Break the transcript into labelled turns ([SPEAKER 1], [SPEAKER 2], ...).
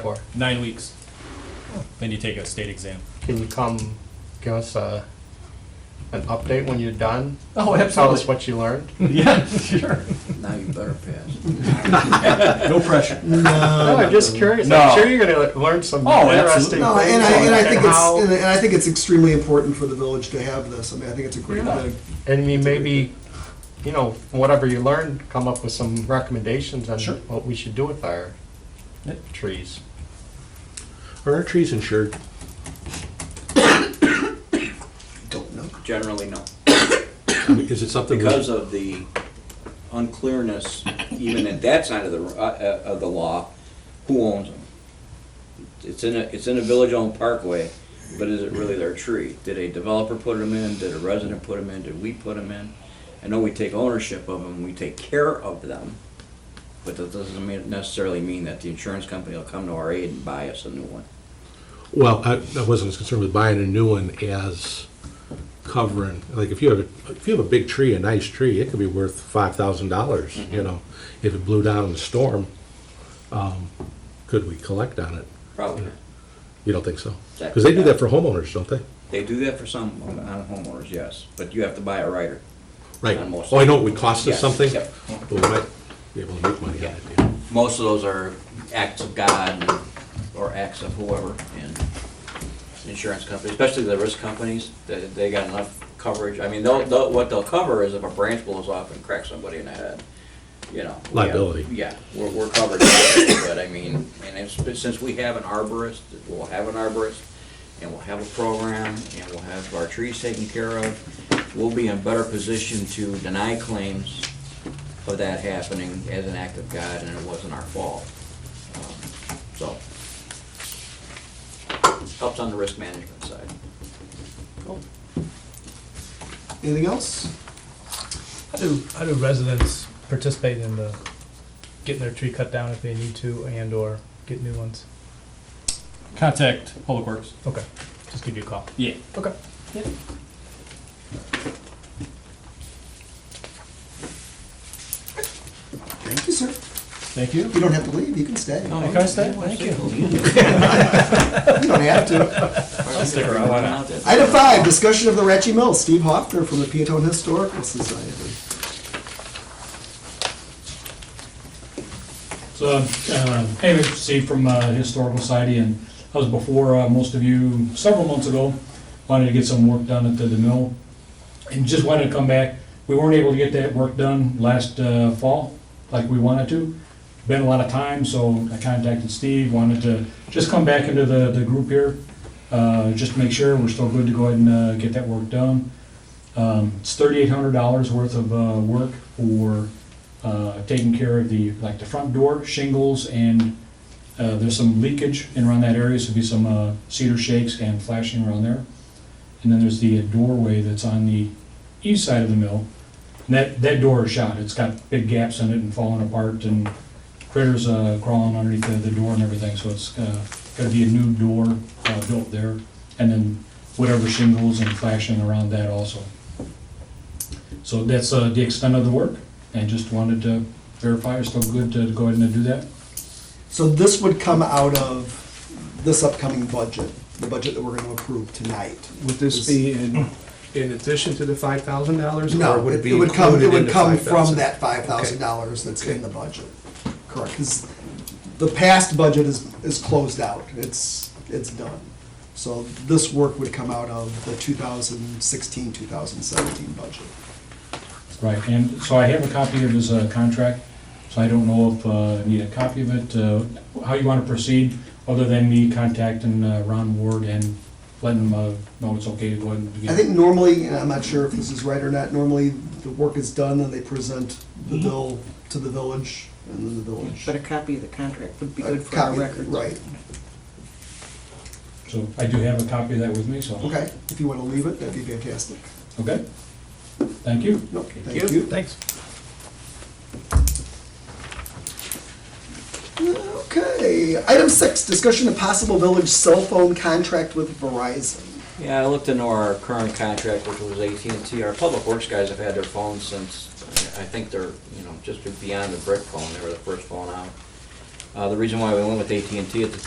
[SPEAKER 1] for?
[SPEAKER 2] Nine weeks. Then you take a state exam.
[SPEAKER 1] Can you come give us a, an update when you're done?
[SPEAKER 2] Oh,
[SPEAKER 1] Tell us what you learned?
[SPEAKER 2] Yeah, sure.
[SPEAKER 3] Now you better pass.
[SPEAKER 2] No pressure.
[SPEAKER 1] No, I'm just curious.
[SPEAKER 2] No.
[SPEAKER 1] I'm sure you're gonna le- learn some
[SPEAKER 2] Oh,
[SPEAKER 1] interesting things.
[SPEAKER 2] absolutely.
[SPEAKER 4] No, and I, and I
[SPEAKER 1] on
[SPEAKER 4] think it's,
[SPEAKER 1] how-
[SPEAKER 4] and I- and I think it's extremely important for the village to have this. I mean, I think it's a great
[SPEAKER 2] Yeah.
[SPEAKER 4] thing.
[SPEAKER 1] And you maybe, you know, whatever you learned, come up with some recommendations on
[SPEAKER 2] Sure.
[SPEAKER 1] what we should do with our
[SPEAKER 2] Yeah.
[SPEAKER 1] trees.
[SPEAKER 5] Are our trees insured?
[SPEAKER 4] Don't know.
[SPEAKER 3] Generally, no.
[SPEAKER 5] I mean, Is it something? we-
[SPEAKER 3] Because of the unclearness, even at that side of the, uh, uh, of the law, who owns them? It's in a, it's in a village-owned parkway, but is it really their tree? Did a developer put them in? Did a resident put them in? Did we put them in? I know we take ownership of them, we take care of them, but that doesn't mean- necessarily mean that the insurance company will come to our aid and buy us a new one.
[SPEAKER 5] Well, I, I wasn't as concerned with buying a new one as covering, like, if you have, a if you have a big tree, a nice tree, it could be worth five thousand dollars, you know? If it blew down in a storm, um, could we collect on it?
[SPEAKER 3] Probably not.
[SPEAKER 5] You don't think so? Because they do that for homeowners, don't they?
[SPEAKER 3] They do that for some, on homeowners, yes, but you have to buy a rider.
[SPEAKER 5] Right.
[SPEAKER 3] On most.
[SPEAKER 5] Oh, I know it would cost us
[SPEAKER 3] Yes,
[SPEAKER 5] something,
[SPEAKER 3] yep.
[SPEAKER 5] but we might be able to make money on it. yeah.
[SPEAKER 3] most of those are acts of God or acts of whoever and insurance companies, especially the risk companies, they, they got enough coverage. I mean, they'll, they'll, what they'll cover is if a branch blows off and cracks somebody in the head, you know. we have-
[SPEAKER 5] Liability.
[SPEAKER 3] Yeah, we're, we're covered, but I mean, and it's, but since we have an arborist, we'll have an arborist and we'll have a program and we'll have our trees taken care of, we'll be in better position to deny claims of that happening as an act of God, and it wasn't our fault. Um, So, helps on the risk management side.
[SPEAKER 4] Anything else?
[SPEAKER 6] How do, how do residents participate in the, getting their tree cut down if they need to and/or get new ones?
[SPEAKER 2] Contact Public Works.
[SPEAKER 6] Okay, just give you a call.
[SPEAKER 2] Yeah.
[SPEAKER 6] Okay.
[SPEAKER 4] Thank you, sir.
[SPEAKER 2] Thank you.
[SPEAKER 4] You don't have to leave. You can stay. You
[SPEAKER 2] Hey, Can I stay? Thank you.
[SPEAKER 4] don't have to.
[SPEAKER 2] I'll stick around. Why not?
[SPEAKER 4] Item five, discussion of the Ratchy Mill. Steve Hoffner from the Peatone Historical Society.
[SPEAKER 7] So,
[SPEAKER 2] um,
[SPEAKER 7] uh, hey, Mr. Steve from uh, Historical Society, and I was before uh, most of you several months ago, wanted to get some work done at the the mill, and just wanted to come back. We weren't able to get that work done last uh, fall like we wanted to. Been a lot of time, so I contacted Steve, wanted to just come back into the the group here, uh, just to make sure we're still good to go ahead and uh, get that work done. Um, It's thirty-eight hundred dollars worth of uh, work for uh, taking care of the, like the front door shingles and uh, there's some leakage in around that area, so there'll be some uh, cedar shakes and flashing around there. And then there's the doorway that's on the east side of the mill. And that, that door is shot, it's got big gaps in it and falling apart and critters uh, crawling underneath the, the door and everything, so it's uh, gotta be a new door uh, built there. And then whatever shingles and flashing around that also. So that's uh, the extent of the work, and just wanted to verify it's still good to go ahead and do that.
[SPEAKER 4] So this would come out of this upcoming budget, the budget that we're going to approve tonight.
[SPEAKER 8] Would this be in, in addition to the five thousand dollars?
[SPEAKER 4] No,
[SPEAKER 8] or would
[SPEAKER 4] it
[SPEAKER 8] be
[SPEAKER 4] it would come, it
[SPEAKER 8] included in
[SPEAKER 4] would
[SPEAKER 8] the
[SPEAKER 4] come from
[SPEAKER 8] 5,000?
[SPEAKER 4] that five thousand dollars that's in the budget. Correct, because the past budget is, is closed out, it's, it's done. So this work would come out of the 2016-2017 budget.
[SPEAKER 7] Right, and so I have a copy of his uh, contract, so I don't know if uh, I need a copy of it, uh, how you want to proceed, other than me contacting uh, Ron Ward and letting him uh, know it's okay to go ahead and begin.
[SPEAKER 4] I think normally, and I'm not sure if this is right or not, normally the work is done and they present the
[SPEAKER 8] Mm-hmm.
[SPEAKER 4] bill to the village and then the village.
[SPEAKER 9] But a copy of the contract would be
[SPEAKER 4] A
[SPEAKER 9] good for our
[SPEAKER 4] copy-
[SPEAKER 9] records.
[SPEAKER 4] Right,
[SPEAKER 7] So I do have a copy of that with me, so.
[SPEAKER 4] okay, if you want to leave it, that'd be fantastic.
[SPEAKER 7] Okay? Thank you.
[SPEAKER 4] Nope, thank you.
[SPEAKER 6] Thanks.
[SPEAKER 4] Okay, item six, discussion of possible village cell phone contract with Verizon.
[SPEAKER 3] Yeah, I looked into our current contract, which was AT&T. Our public works guys have had their phones since, I think they're, you know, just beyond the brick phone. They were the first phone out. Uh, The reason why we went with AT&T at the